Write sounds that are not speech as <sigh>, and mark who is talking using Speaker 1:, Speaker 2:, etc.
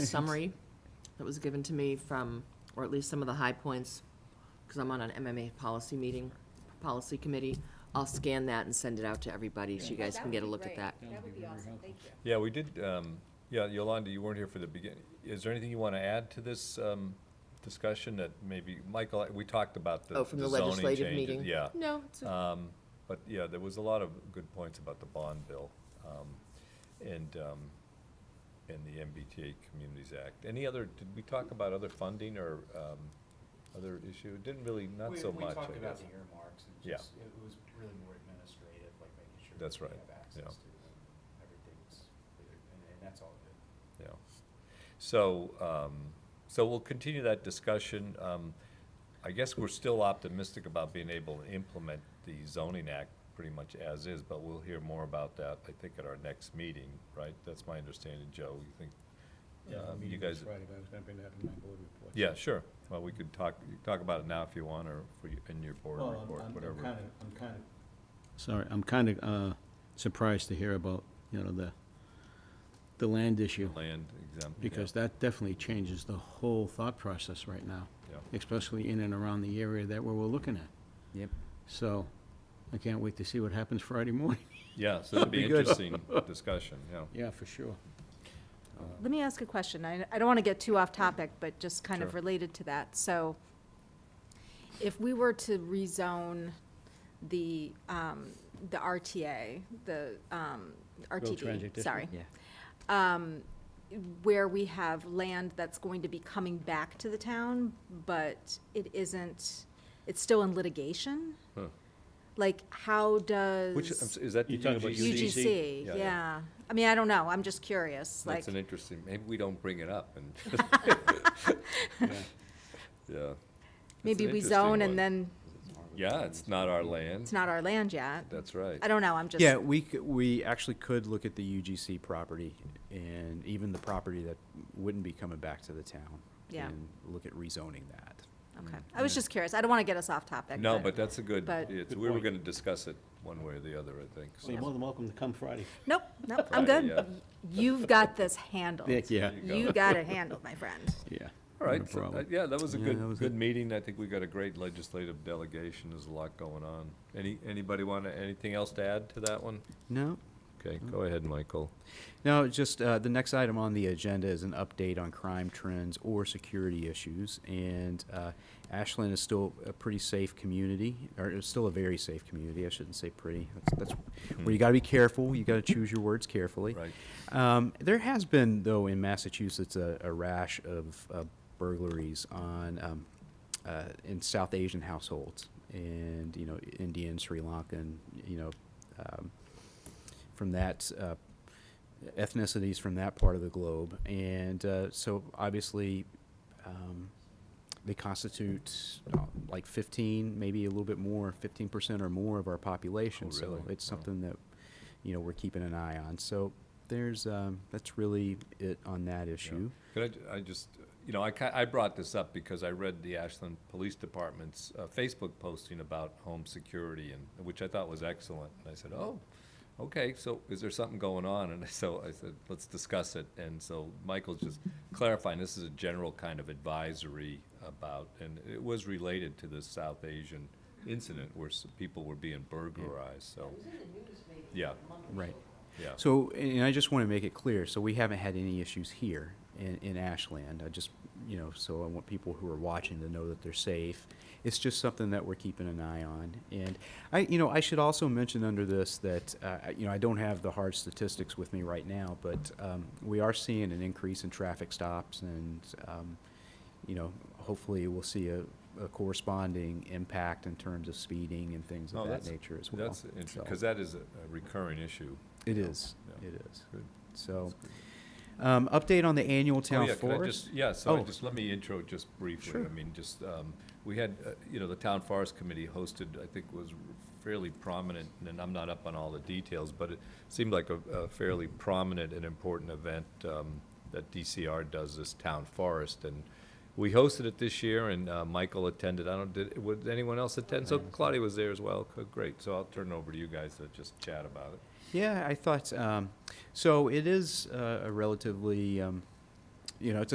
Speaker 1: <laughs> summary that was given to me from, or at least some of the high points, because I'm on an MMA policy meeting, policy committee. I'll scan that and send it out to everybody, so you guys
Speaker 2: Oh, That
Speaker 1: can
Speaker 2: would
Speaker 1: get a
Speaker 2: be
Speaker 1: look at
Speaker 2: great.
Speaker 1: that.
Speaker 2: That would be awesome, thank you.
Speaker 3: Yeah, we did, um, yeah, Yolanda, you weren't here for the beginning. Is there anything you want to add to this um, discussion that maybe, Michael, we talked about the
Speaker 1: Oh, from the
Speaker 3: the zoning
Speaker 1: legislative
Speaker 3: changes,
Speaker 1: meeting?
Speaker 3: Yeah.
Speaker 1: No, it's, a-
Speaker 3: Um, But, yeah, there was a lot of good points about the bond bill um, and, um, and the MBTA Communities Act. Any other, did we talk about other funding or um, other issue? Didn't really, not
Speaker 4: We-
Speaker 3: so much, I
Speaker 4: We talked about
Speaker 3: guess.
Speaker 4: the earmarks and
Speaker 3: Yeah.
Speaker 4: just, it was really more administrative, like making sure.
Speaker 3: That's
Speaker 4: that we
Speaker 3: right,
Speaker 4: have
Speaker 3: yeah.
Speaker 4: access to them, everything's clear, and, and that's all good.
Speaker 3: Yeah. So, um, so we'll continue that discussion. Um, I guess we're still optimistic about being able to implement the zoning act pretty much as is, but we'll hear more about that, I think, at our next meeting, right? That's my understanding, Joe. You think, um, you guys?
Speaker 5: Friday, but I was gonna bring that in my board report.
Speaker 3: Yeah, sure. Well, we could talk, you can talk about it now if you want, or for you- in your board
Speaker 5: Well, I'm-
Speaker 3: report,
Speaker 5: I'm-
Speaker 3: whatever.
Speaker 5: I'm kind of, I'm kind of. Sorry, I'm kind of, uh, surprised to hear about, you know, the, the land issue,
Speaker 3: Land exempt. yeah,
Speaker 5: because that definitely changes the whole thought process right now,
Speaker 3: Yeah,
Speaker 5: especially in and around the area that we're, we're looking at.
Speaker 6: Yep.
Speaker 5: So, I can't wait to see what happens Friday morning.
Speaker 3: yeah, so that'd be
Speaker 5: Be good.
Speaker 3: interesting discussion,
Speaker 5: <laughs>
Speaker 3: yeah.
Speaker 5: Yeah, for sure.
Speaker 2: Let me ask a question. I, I don't want to get too off topic, but just kind of
Speaker 3: Sure.
Speaker 2: related to that. So if we were to rezone the, um, the RTA, the, um,
Speaker 5: Transit
Speaker 2: RTD,
Speaker 5: District?
Speaker 2: sorry.
Speaker 6: Yeah.
Speaker 2: Um, where we have land that's going to be coming back to the town, but it isn't, it's still in litigation?
Speaker 3: Huh.
Speaker 2: Like, how does?
Speaker 3: Which, I'm s- is that the
Speaker 5: You're talking about
Speaker 3: UGC?
Speaker 2: UGC,
Speaker 3: Yeah, yeah.
Speaker 2: yeah. I mean, I don't know, I'm just curious, like,
Speaker 3: That's an interesting, maybe we don't bring it up
Speaker 2: <laughs>
Speaker 3: and, <laughs>
Speaker 5: Yeah.
Speaker 3: yeah.
Speaker 2: maybe
Speaker 3: an
Speaker 2: we
Speaker 3: interesting
Speaker 2: zone
Speaker 3: one.
Speaker 2: and then
Speaker 3: Yeah, it's not our land.
Speaker 2: it's not our land yet.
Speaker 3: That's right.
Speaker 2: I don't know, I'm just,
Speaker 6: Yeah, we, c- we actually could look at the UGC property and even the property that wouldn't be coming back to the town.
Speaker 2: Yeah.
Speaker 6: And look at rezoning that.
Speaker 2: okay. I was just curious, I don't want to get us off topic.
Speaker 3: No, but that's a good,
Speaker 2: but-
Speaker 3: it's,
Speaker 5: Good
Speaker 3: we were
Speaker 5: point.
Speaker 3: gonna discuss it one way or the other, I think.
Speaker 5: So you're more than welcome to come Friday.
Speaker 2: Nope,
Speaker 3: <laughs>
Speaker 2: nope, I'm
Speaker 3: Friday,
Speaker 2: good.
Speaker 3: yeah.
Speaker 2: Y- You've got this handled.
Speaker 5: Yeah,
Speaker 3: you go.
Speaker 2: You got it handled, my friend.
Speaker 5: yeah. No
Speaker 3: All right, so, uh,
Speaker 5: problem.
Speaker 3: yeah, that was a
Speaker 6: Yeah, that
Speaker 3: good,
Speaker 6: was
Speaker 3: good
Speaker 6: it.
Speaker 3: meeting. I think we got a great legislative delegation. There's a lot going on. Any, anybody wanna, anything else to add to that one?
Speaker 6: No,
Speaker 3: Okay,
Speaker 6: Mm-hmm.
Speaker 3: go ahead, Michael.
Speaker 6: no, just, uh, the next item on the agenda is an update on crime trends or security issues. And, uh, Ashland is still a pretty safe community, or it's still a very safe community. I shouldn't say pretty. That's, that's where you gotta be careful. You gotta choose your words carefully.
Speaker 3: Right.
Speaker 6: Um, there has been, though, in Massachusetts, a, a rash of uh, burglaries on um, uh, in South Asian households, and you know, Indian, Sri Lankan, you know, um, from that uh, ethnicities from that part of the globe, and uh, so obviously. Um, they constitute uh, like 15, maybe a little bit more, 15% or more of our population.
Speaker 3: Oh, really?
Speaker 6: So it's
Speaker 3: Wow.
Speaker 6: something that you know we're keeping an eye on. So there's um, that's really it on that issue.
Speaker 3: Could I ju- I, just, you know, I ki- I brought this up because I read the Ashland Police Department's uh, Facebook posting about home security and, which I thought was excellent. And I said, oh, okay, so is there something going on? And <laughs> so I said, let's discuss it. And so Michael's just clarifying, this is a general kind of advisory about, and it was related to this South Asian incident where s- people were being burglarized, so. Yeah,
Speaker 6: Right.
Speaker 3: yeah.
Speaker 6: So, and I just want to make it clear, so we haven't had any issues here in, in Ashland. I just, you know, so I want people who are watching to know that they're safe. It's just something that we're keeping an eye on. And I, you know, I should also mention under this that, uh, I- you know, I don't have the hard statistics with me right now, but um, we are seeing an increase in traffic stops and, um, you know, hopefully we'll see a, a corresponding impact in terms of speeding and things
Speaker 3: No,
Speaker 6: of that
Speaker 3: Oh, that's-
Speaker 6: nature as well.
Speaker 3: That's interesting,
Speaker 6: So-
Speaker 3: because that is a a recurring issue.
Speaker 6: It
Speaker 3: you know,
Speaker 6: is,
Speaker 3: yeah.
Speaker 6: it is.
Speaker 3: Good.
Speaker 6: So, um, update on the annual
Speaker 3: Oh,
Speaker 6: town
Speaker 3: yeah, could I
Speaker 6: forest?
Speaker 3: just- Yeah, so I
Speaker 6: Oh.
Speaker 3: just, let me intro just briefly.
Speaker 6: Sure.
Speaker 3: I mean, just, um, we had, uh, you know, the Town Forest Committee hosted, I think was fairly prominent, and I'm not up on all the details, but it seemed like a a fairly prominent and important event um, that DCR does, this Town Forest. And we hosted it this year, and uh, Michael attended. I don't, did, would anyone else attend? So Claudia was there as well. Co- Great. So I'll turn it over to you guys to just chat about it.
Speaker 6: Yeah, I thought, um, so it is uh, a relatively, um, you know, it's